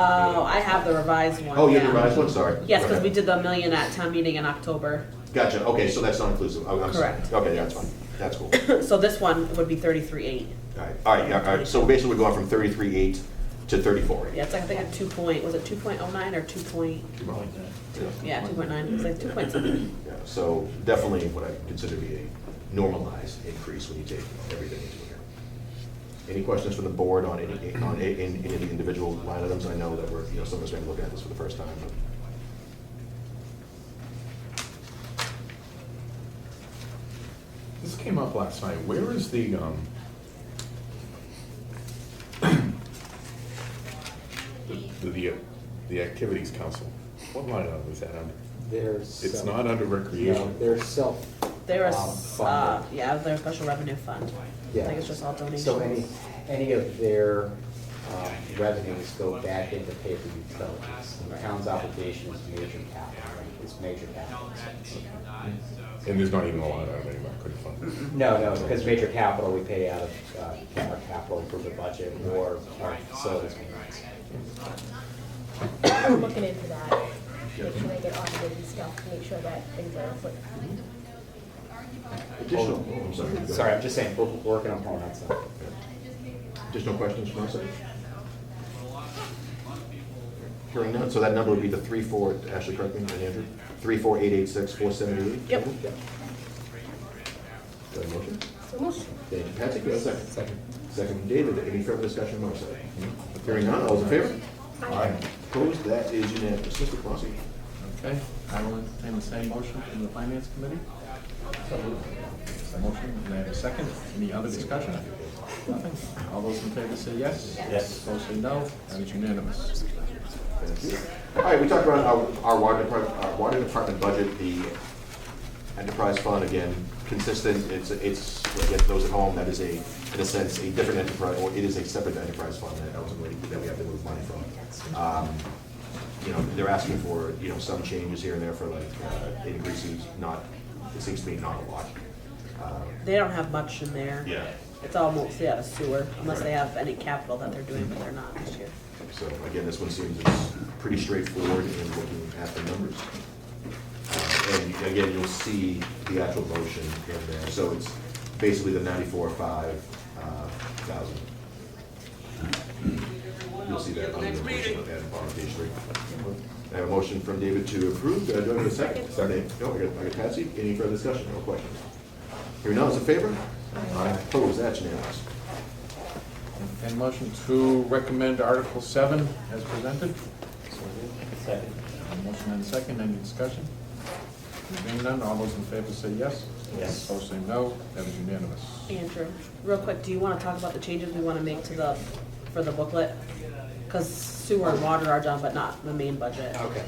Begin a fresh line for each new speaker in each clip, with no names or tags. Oh, I have the revised one.
Oh, you have
yeah.
the revised one, sorry.
Yes, because we
Okay.
did the million at town meeting in October.
Gotcha, okay, so that's not inclusive, Oh, I'm sorry.
Correct.
Okay, yeah, that's fine, that's cool.
So this one would be thirty-three eight.
All right, all right, yeah, all right, so basically we're going from thirty-three eight to thirty-four eight.
Yeah, it's like, I think a two point, was it two point oh nine or two point, yeah, two point nine, it's like two point something.
Yeah, so definitely what I consider to be a normalized increase when you take everything into account. Any questions from the board on any, on a- in- any of the individual line items? I know that we're, you know, some of us may be looking at this for the first time, but.
This came up last night. Where is the, um, the, the, uh, the activities council? What line item is that under?
They're.
It's
self-
not under
No,
recreation.
they're self.
There
um,
is, uh,
funded.
yeah, there's a special revenue fund. I
Yeah.
think it's just all donations.
So any, any of their um, revenues go back into pay for utilities. The town's obligation is major capital, it's major capital.
And there's not even a line item anymore. I couldn't find
No, no, because major capital, we pay out of uh, our capital for the budget or our facilities maintenance.
I'm looking into that, make sure they get audited and stuff, make sure that things are, like,
Additional, oh, I'm sorry. go ahead.
Sorry, I'm just saying, we're we're working on pulling that stuff.
Additional questions from us? Hearing none, so that number would be the three, four, Ashley, correct me, and Andrew, three, four, eight, eight, six, four, seven, eight?
Yep.
Do I have a motion?
so most,
Thank you, Patrick, do I have a second? Second. Second from David, any further discussion on our side? Hmm? Hearing none, all those in favor?
Aye.
Opposed, that is unanimous. Mr. Crossy?
Okay, I will entertain the same motion from the finance committee. Motion, may I have a second? Any other discussion? Nothing? All those in favor say yes? Yes. Those say no, that is unanimous.
Thank you. All right, we talked about our, our water department, our water department budget, the enterprise fund, again, consistent, it's, it's, again, those at home, that is a, in a sense, a different enterprise, or it is a separate enterprise fund that ultimately, that we have to move money from. Um, You know, they're asking for, you know, some changes here and there for like uh, increases, not, it seems to me not a lot. Uh,
They don't have much in there.
Yeah.
It's all mostly out of sewer, unless they have any capital that they're doing, but they're not this year.
So again, this one seems it's pretty straightforward in looking at the numbers. Uh, And you- again, you'll see the actual motion in there, so it's basically the ninety-four, five uh, thousand. You'll see that on the motion at the bottom of page three. I have a motion from David to approve, Uh, do I have a second? Second. No, I got, I got Patsy, any further discussion, no questions? Hearing none, is in favor? Aye. Opposed, that's unanimous.
Entertain motion to recommend Article seven as presented. Second. Motion and second, any discussion? Being none, all those in favor say yes? Yes. Those say no, that is unanimous.
Andrew, real quick, do you wanna talk about the changes we wanna make to the, for the booklet? Cause sewer and water are done, but not the main budget.
Okay.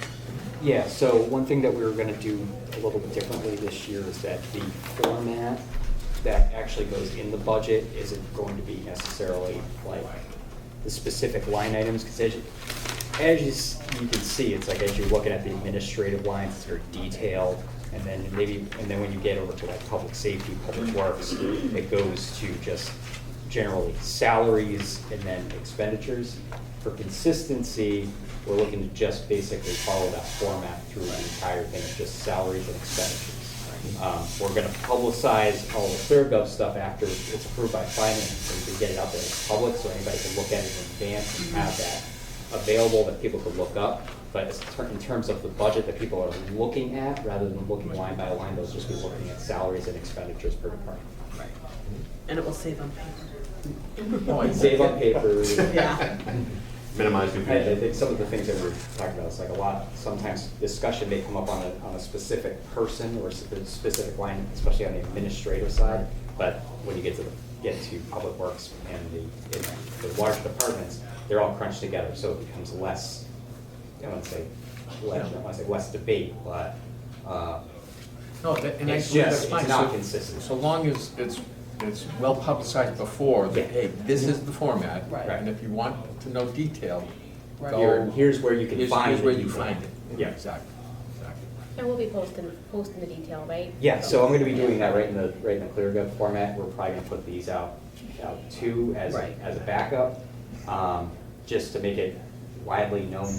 Yeah, so one thing that we were gonna do a little bit differently this year is that the format that actually goes in the budget isn't going to be necessarily like the specific line items, because as you, as you s- you can see, it's like as you're looking at the administrative lines, it's very detailed, and then maybe, and then when you get over to like public safety, public works, it goes to just generally salaries and then expenditures. For consistency, we're looking to just basically follow that format through the entire thing, just salaries and expenditures. Um, We're gonna publicize all the ClearGov stuff after it's approved by finance, so we can get it out there in public, so anybody can look at it in advance and have that available that people could look up. But as ter- in terms of the budget that people are looking at, rather than looking line by line, those just be looking at salaries and expenditures per department.
Right. And it will save on paper.
No, I-
Save on paper.
Yeah.
Minimize
I, I
confusion.
think some of the things that we're talking about, it's like a lot, sometimes discussion may come up on a, on a specific person or a spe- specific line, especially on the administrative side. But when you get to, the get to public works and the, and the large departments, they're all crunched together, so it becomes less, I don't wanna say, less, I don't wanna say less debate, but, uh,
No, that, and
It's
actually, that's
just-
fine.
it's not
So-
consistent.
So long as it's, it's well publicized before, that,
Yeah. Mm-hmm.
hey, this is the format.
Right.
And if you want to know detail,
Right.
here,
go.
here's where you can
Here's,
find it.
here's where you find it.
Yeah.
Exactly, exactly.
and we'll be posting, posting the detail, right?
Yeah, so I'm gonna be doing that right in the, right in the ClearGov format, we're probably gonna put these out, out too, as,
Right.
as a backup, um, just to make it widely known